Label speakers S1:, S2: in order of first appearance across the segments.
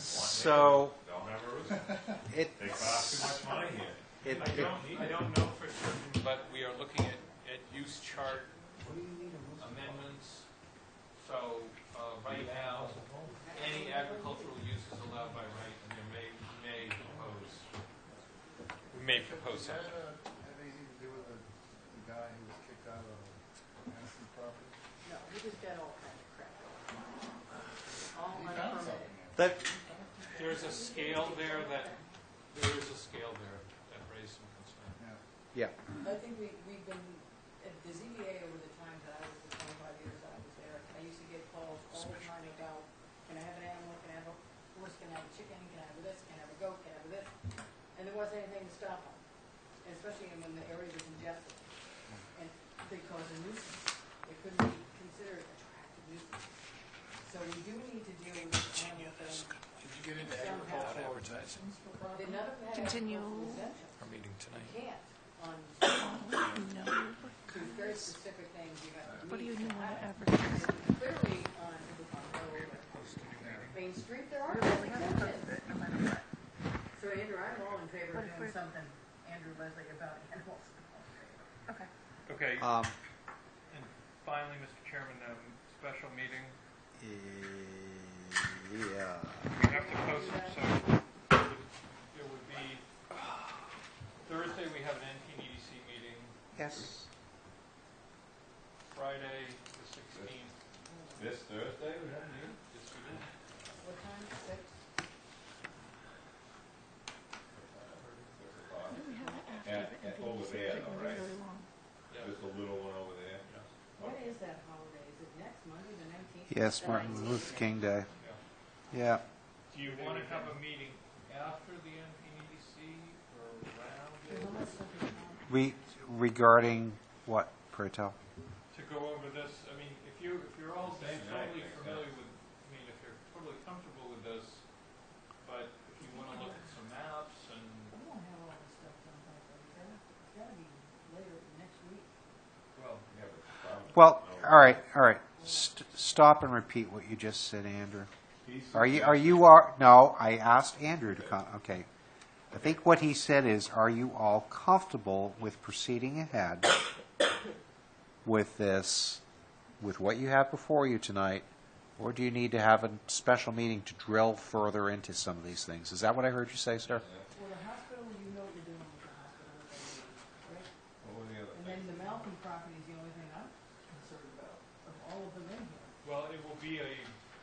S1: So
S2: Don't ever lose it.
S1: it,
S2: They cost too much money here.
S1: it,
S3: I don't, I don't know for certain, but we are looking at, at use chart amendments. So, uh, right now, any agricultural use is allowed by right, and there may, may propose, we may propose
S4: Does
S3: that.
S4: that uh, have anything to do with the, the guy who was kicked out of Madison property?
S5: No, we just got all kinds of crap. All
S4: He found
S5: unpermitted.
S4: something. in it.
S1: that
S3: There's a scale there that, there is a scale there that raised some concern.
S4: Yeah.
S1: yeah.
S5: I think we, we've been at the ZBA over the time that I was, the twenty-five years I was there, I used to get calls all the time about, can I have an animal, can I have a horse, can I have a chicken, can I have this, can I have a goat, can I have this? And there wasn't anything to stop them, especially when the area was congested. And they caused a nuisance, it could be considered attractive nuisance. So we do need to deal with this animal thing.
S4: Did you get into
S5: Somehow.
S4: agricultural advertisements for property?
S5: Did none of that have
S6: Continue.
S5: personal exemptions?
S7: our meeting
S5: You
S7: tonight.
S5: can't on
S6: No,
S5: to very specific things you have to
S6: what do you
S5: meet.
S6: even want
S5: I-
S6: to advertise?
S5: Clearly, on, on Main Street, there are no exemptions. So Andrew, I'm all in favor
S6: What
S5: of doing
S6: if we're-
S5: something, Andrew Leslie, about animals.
S6: Okay.
S8: Okay,
S1: Um,
S8: and finally, Mr. Chairman, um, special meeting,
S1: eh, yeah.
S8: we have to post it, so it would be, uh, Thursday, we have an NPDDC meeting,
S1: Yes.
S8: Friday, the sixteenth,
S2: This Thursday, we have a meeting?
S8: this week,
S5: What time, six?
S2: Six o'clock.
S6: We have it
S2: At-
S6: after the
S2: at- over
S6: NPDC,
S2: there,
S6: it can be
S2: right.
S6: really long.
S8: yeah.
S2: Just a little one over there.
S5: What is that holiday? Is it next Monday, the nineteenth?
S1: Yes, Martin Luther King Day. Yeah.
S8: Do you want to have a meeting after the NPDDC or around it
S1: We regarding what, pray tell?
S8: to go over this? I mean, if you, if you're all
S2: Same night,
S8: totally
S2: I think.
S8: familiar with, I mean, if you're totally comfortable with this, but if you want to look at some maps and
S5: We won't have all this stuff done by Thursday. It's gotta be later next week.
S2: Well, we have a problem.
S1: Well,
S2: No.
S1: all right, all right. St- stop and repeat what you just said, Andrew.
S2: He's-
S1: Are you, are you, are, no, I asked Andrew to come, okay. I think what he said is, are you all comfortable with proceeding ahead with this, with what you have before you tonight? Or do you need to have a special meeting to drill further into some of these things? Is that what I heard you say, sir?
S5: Well, the hospital, you know what you're doing with the hospital, right?
S2: What were the other
S5: And
S2: things?
S5: then the Malcolm property is the only thing I'm concerned about, of all of them in here.
S8: Well, it will be a,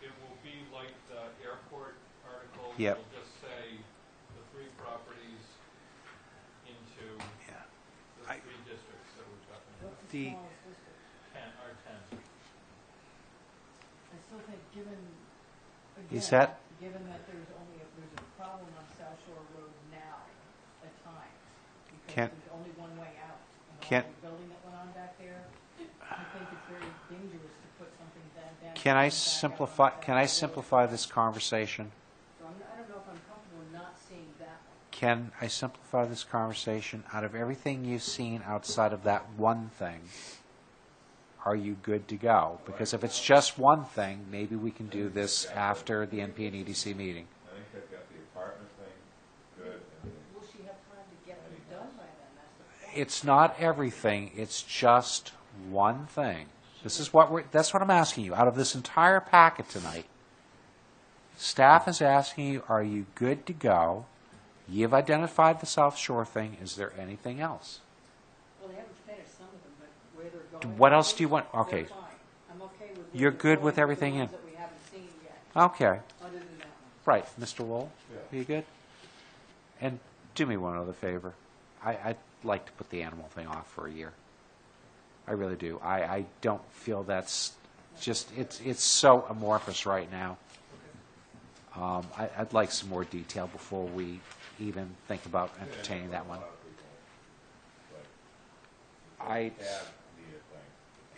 S8: it will be like the airport article.
S1: Yep.
S8: It'll just say the three properties into
S1: Yeah.
S8: the
S1: I-
S8: three districts that we're talking about.
S5: What's the
S1: The-
S5: smallest district?
S8: Ten, our ten.
S5: I still think, given,
S1: You
S5: again,
S1: set?
S5: given that there's only, a- there's a problem on South Shore Road now at times, because
S1: Can't-
S5: there's only one way out.
S1: Can't-
S5: And all the building that went on back there, I think it's very dangerous to put something that down.
S1: Can I
S5: back out on
S1: simplify,
S5: South
S1: can I
S5: Shore Road.
S1: simplify this conversation?
S5: So I'm, I don't know if I'm comfortable not seeing that one.
S1: Can I simplify this conversation? Out of everything you've seen outside of that one thing, are you good to go? Because if it's just one thing, maybe we can do this after the NP and EDC meeting.
S2: I think they've got the apartment thing good. and then-
S5: Will she have time to get them done by then? That's the problem.
S1: It's not everything, it's just one thing. This is what we're, that's what I'm asking you. Out of this entire packet tonight, staff is asking you, are you good to go? You've identified the South Shore thing. Is there anything else?
S5: Well, they haven't finished some of them, but where they're going.
S1: What else do you want-
S5: They're
S1: okay.
S5: fine. I'm okay with.
S1: You're
S5: where they're
S1: good with
S5: going, the
S1: everything in-
S5: ones That we haven't seen yet,
S1: Okay.
S5: other than that one.
S1: Right, Mr. Lowell, are
S2: Yeah.
S1: you good? And do me one other favor. I, I'd like to put the animal thing off for a year. I really do. I, I don't feel that's just, it's, it's so amorphous right now. Um, I, I'd like some more detail before we even think about entertaining that one.
S2: A lot of people, But
S1: I,
S2: have the thing.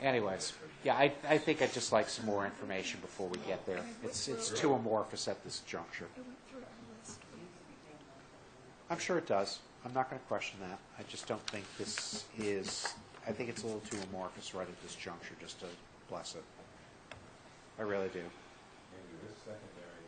S1: anyways, yeah, I, I think I'd just like some more information before we get there. It's, it's too amorphous at this juncture.
S6: It went through our list.
S1: I'm sure it does. I'm not going to question that. I just don't think this is, I think it's a little too amorphous right at this juncture just to bless it. I really do.